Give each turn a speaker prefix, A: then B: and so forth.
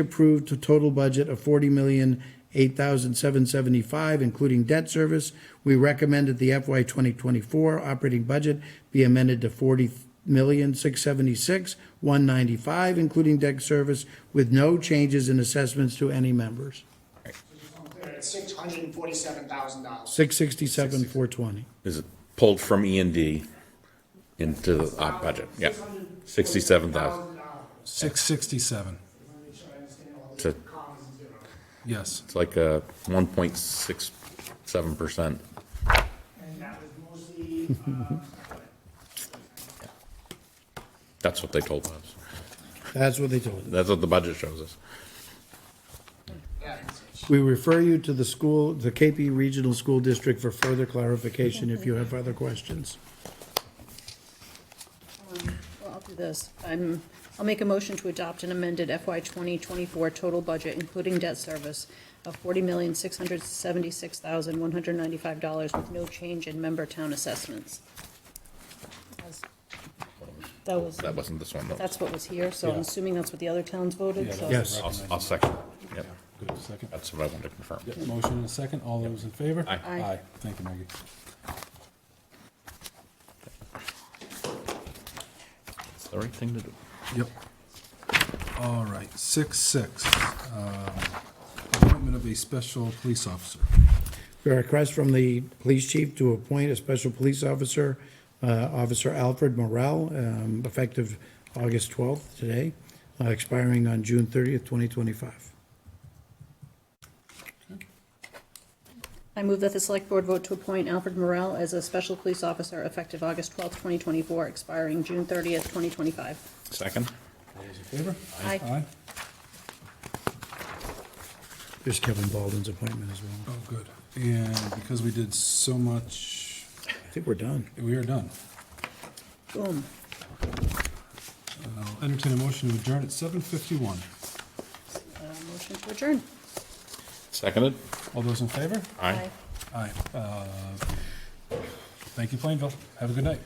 A: approved a total budget of forty million, eight thousand, seven seventy-five, including debt service. We recommend that the FY twenty twenty-four operating budget be amended to forty million, six seventy-six, one ninety-five, including debt service, with no changes in assessments to any members.
B: It's six hundred and forty-seven thousand dollars.
A: Six sixty-seven, four twenty.
C: Is it pulled from E and D into the op budget? Yeah, sixty-seven thousand.
D: Six sixty-seven,
C: It's
D: yes.
C: it's like a one point six seven percent.
B: And that was mostly, uh,
C: That's what they told us.
A: That's what they told us.
C: That's what the budget shows us.
B: yeah, it's-
A: We refer you to the school, the KP Regional School District for further clarification if you have other questions.
E: Well, I'll do this. I'm, I'll make a motion to adopt an amended FY 2024 total budget, including debt service, of $40,676,195 with no change in member town assessments. That was,
C: That wasn't this one, though.
E: that's what was here, so I'm assuming that's what the other towns voted, so.
A: Yes.
C: I'll, I'll second. it. Yep,
D: Good, second.
C: that's what I wanted to confirm.
D: Yep, Motion and a second, all those in favor?
C: Aye.
E: Aye.
D: Aye, thank you, Maggie.
C: It's the right thing to do.
D: Yep. All right, six, six, um, appointment of a special police officer.
A: A request from the police chief to appoint a special police officer, uh, Officer Alfred Morel, um, effective August 12th, today, uh, expiring on June 30th, 2025.
E: I move that the select board vote to appoint Alfred Morel as a special police officer effective August 12th, 2024, expiring June 30th, 2025.
C: Second?
D: All those in favor?
E: Aye.
D: Aye,
A: There's Kevin Baldwin's appointment as well.
D: oh, good. And because we did so much,
A: I think we're done.
D: we are done.
E: Boom.
D: I'll entertain a motion to adjourn at seven fifty-one.
E: Uh, Motion to adjourn.
C: Seconded?
D: All those in favor?
C: Aye.
D: Aye. Uh, Thank you, Plainville, have a good night.